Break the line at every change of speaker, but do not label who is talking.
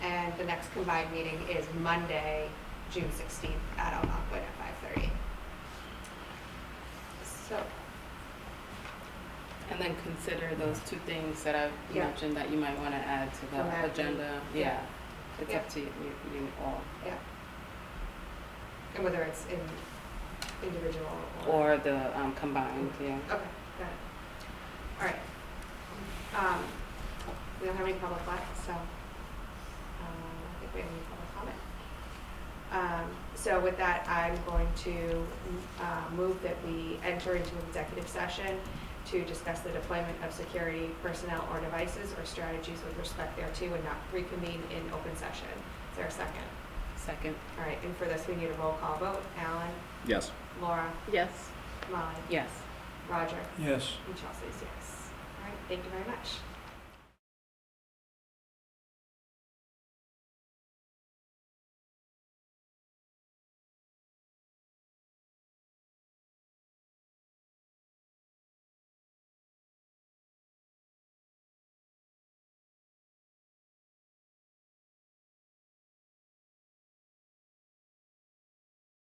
next combined meeting is Monday, June sixteenth at Algonquin at five thirty. So,
And then consider those two things that I've
Yeah.
mentioned that you might want to add to
From that
the agenda.
meeting.
Yeah, it's
Yeah.
up to you, you- you all.
yeah. And whether it's in individual or.
Or the um, combined, yeah.
Okay, got it. All right. Um, we don't have any public left, so, um, I think we have any public comment. Um, so with that, I'm going to, uh, move that we enter into executive session to discuss the deployment of security personnel or devices or strategies with respect thereto and not reconvene in open session. Is there a second?
Second.
All right, and for this, we need a roll call vote. Alan,
Yes.
Laura,
Yes.
Molly,
Yes.
Roger.
Yes.
And Chelsea's yes. All right, thank you very much.